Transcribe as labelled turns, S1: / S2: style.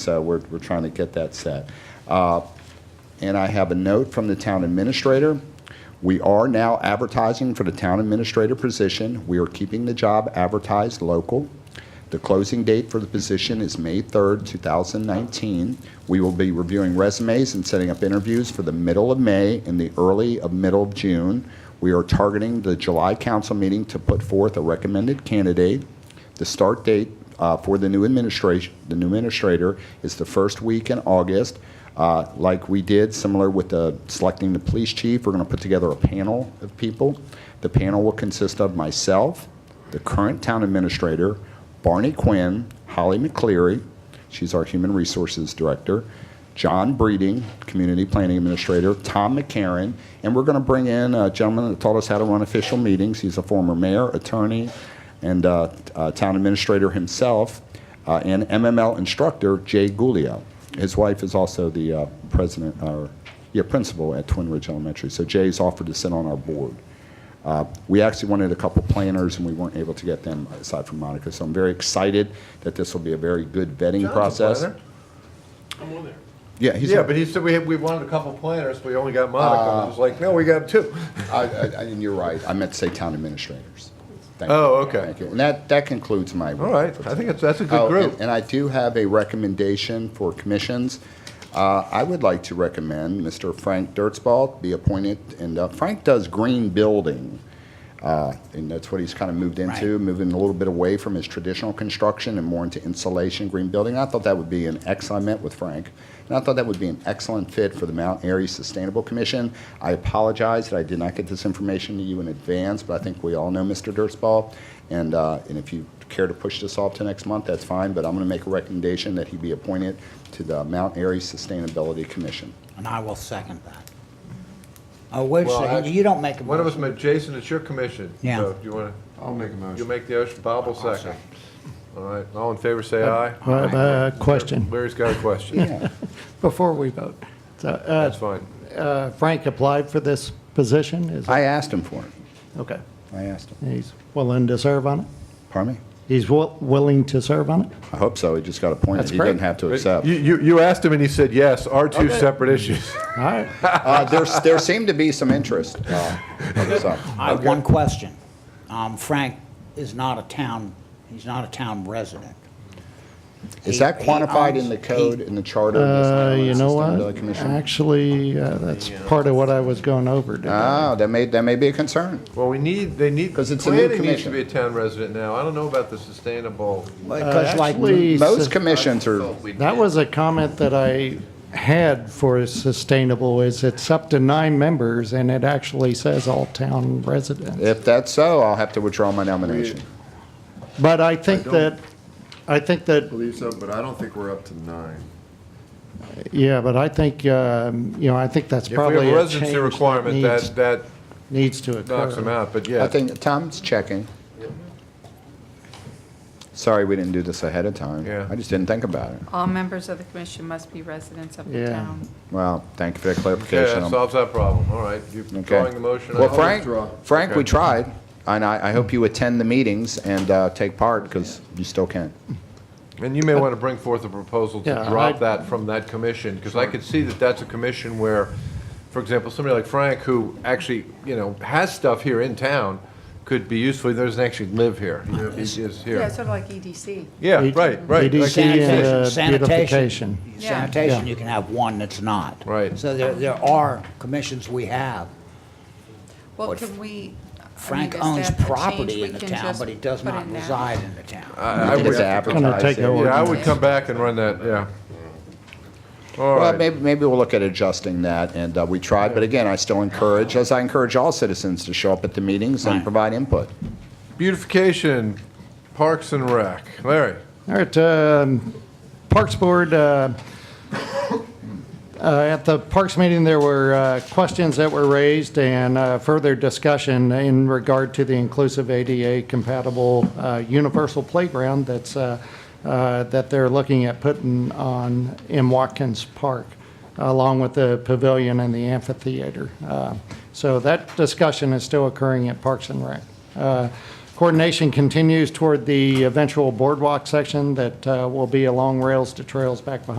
S1: So we're, we're trying to get that set. Uh, And I have a note from the town administrator. We are now advertising for the town administrator position. We are keeping the job advertised local. The closing date for the position is May 3rd, 2019. We will be reviewing resumes and setting up interviews for the middle of May and the early of middle of June. We are targeting the July council meeting to put forth a recommended candidate. The start date uh, for the new administration, the new administrator, is the first week in August. Uh, Like we did, similar with the selecting the police chief, we're going to put together a panel of people. The panel will consist of myself, the current town administrator, Barney Quinn, Holly McCleary, she's our human resources director, John Breeding, Community Planning Administrator, Tom McCarron, and we're going to bring in a gentleman that taught us how to run official meetings. He's a former mayor, attorney, and uh, uh, town administrator himself, uh, and MML instructor Jay Guglio. His wife is also the uh, president, or, yeah, principal at Twin Ridge Elementary. So Jay's offered to sit on our board. Uh, We actually wanted a couple planners, and we weren't able to get them aside from Monica. So I'm very excited that this will be a very good vetting
S2: John's a
S1: process.
S2: planner.
S3: I'm on there.
S1: Yeah, he's.
S2: Yeah, but he said we, we wanted a couple planners, but we only got Monica. I was like, no, we got two.
S1: I, I, I- and you're right. I meant to say town administrators. Thank
S2: Oh,
S1: you.
S2: okay.
S1: Thank you. And that, that concludes my.
S2: All right, I think it's, that's a
S1: Oh,
S2: good
S1: and-
S2: group.
S1: And I do have a recommendation for commissions. Uh, I would like to recommend Mr. Frank Dirtsball be appointed, and uh, Frank does green building. Uh, And that's what he's kind of moved into, moving a little bit away from his traditional construction and more into insulation, green building. I thought that would be an ex, I met with Frank, and I thought that would be an excellent fit for the Mount Airy Sustainable Commission. I apologize that I did not get this information to you in advance, but I think we all know Mr. Dirtsball. And, uh, and if you care to push this off to next month, that's fine, but I'm going to make a recommendation that he be appointed to the Mount Airy Sustainability Commission.
S4: And I will second that. Oh, wait a
S2: Well,
S4: second,
S2: actually,
S4: you don't make a
S2: One of us,
S4: motion.
S2: met Jason, it's your commission.
S4: Yeah.
S2: So Do you want
S5: I'll make a
S2: to, you
S5: motion.
S2: make the ocean, Bob will second. All right, all in favor, say aye.
S6: All right, uh, question,
S2: Larry's got a question.
S6: before we vote. So, uh,
S2: That's fine.
S6: uh, Frank applied for this position, is,
S1: I asked him for it.
S6: okay.
S1: I asked him.
S6: He's willing to serve on it?
S1: Pardon me?
S6: He's wi- willing to serve on it?
S1: I hope so. He just got appointed.
S6: That's
S1: He didn't
S6: great.
S1: have to
S2: You,
S1: accept.
S2: you, you asked him and he said yes, are two separate issues.
S6: All right,
S1: Uh, there's, there seemed to be some interest. uh, so,
S4: I have one question. Um, Frank is not a town, he's not a town resident.
S1: Is that
S4: He- he
S1: quantified in
S4: owns-
S1: the
S4: he-
S1: code, in the charter? of the
S6: uh,
S1: Sustainability
S6: you know
S1: Sustainability
S6: what?
S1: Commission?
S6: Actually, uh, that's part of what I was going over today.
S1: Ah, that may, that may be a concern.
S2: Well, we need, they need,
S1: 'Cause it's a new
S2: planning needs to
S1: commission.
S2: be a town resident now. I don't know about the sustainable.
S4: Because like,
S6: Uh, actually-
S1: Most commissions are,
S6: That was a comment that I had for sustainable, is it's up to nine members, and it actually says all town residents.
S1: if that's so, I'll have to withdraw my nomination.
S6: But I think
S5: I don't-
S6: that, I think that
S5: Believe so, but I don't think we're up to nine.
S6: Yeah, but I think, um, you know, I think that's
S2: If we have a
S6: probably a change
S2: residency
S6: that
S2: requirement,
S6: needs,
S2: that, that
S6: needs to occur.
S2: knocks them out, but yeah.
S1: I think Tom's checking. Sorry, we didn't do this ahead of time.
S2: Yeah.
S1: I just didn't think about it.
S7: All members of the commission must be residents of the
S6: Yeah.
S7: town.
S1: Well, thank you for that
S2: Yeah,
S1: clarification.
S2: that solves that problem, all right. You're
S1: Okay.
S2: drawing the motion.
S1: Well,
S2: I'll
S1: Frank,
S2: withdraw.
S1: Frank, we
S2: Okay.
S1: tried, and I, I hope you attend the meetings and uh, take part, because you still can.
S2: And you may want to bring forth a proposal to
S6: Yeah, I-
S2: drop that from that commission, because I could see that that's a commission where, for example, somebody like Frank, who actually, you know, has stuff here in town, could be useful, he doesn't actually live here. He is
S7: Yeah,
S2: here.
S7: sort of like E EDC.
S2: Yeah, right, right. like-
S6: EDC. Sanitation, and, uh,
S4: sanitation,
S6: beautification.
S7: Yeah.
S4: sanitation,
S6: Yeah.
S4: you can have one that's not.
S2: Right.
S4: So there, there are commissions we have.
S7: Well,
S4: What
S7: can we? I mean,
S4: Frank
S7: is
S4: owns
S7: that a change
S4: property
S7: we
S4: in the
S7: can
S4: town,
S7: just
S4: but he does
S7: put
S4: not
S7: in now?
S4: reside in the town.
S2: I- I
S1: It's
S2: would-
S6: gonna
S1: advertised.
S6: take over.
S2: Yeah, I would come back and run that, yeah. All
S1: Well,
S2: right,
S1: maybe, maybe we'll look at adjusting that, and uh, we tried, but again, I still encourage, as I encourage all citizens to show up at the meetings and
S4: Right.
S1: provide input.
S2: beautification, Parks and Rec, Larry.
S6: All right, um, Parks Board, uh, uh, at the Parks meeting, there were uh, questions that were raised and uh, further discussion in regard to the inclusive ADA compatible uh, universal playground that's, uh, uh, that they're looking at putting on in Watkins Park, along with the pavilion and the amphitheater. Uh, So that discussion is still occurring at Parks and Rec. Uh, Coordination continues toward the eventual boardwalk section that uh, will be along rails to trails back behind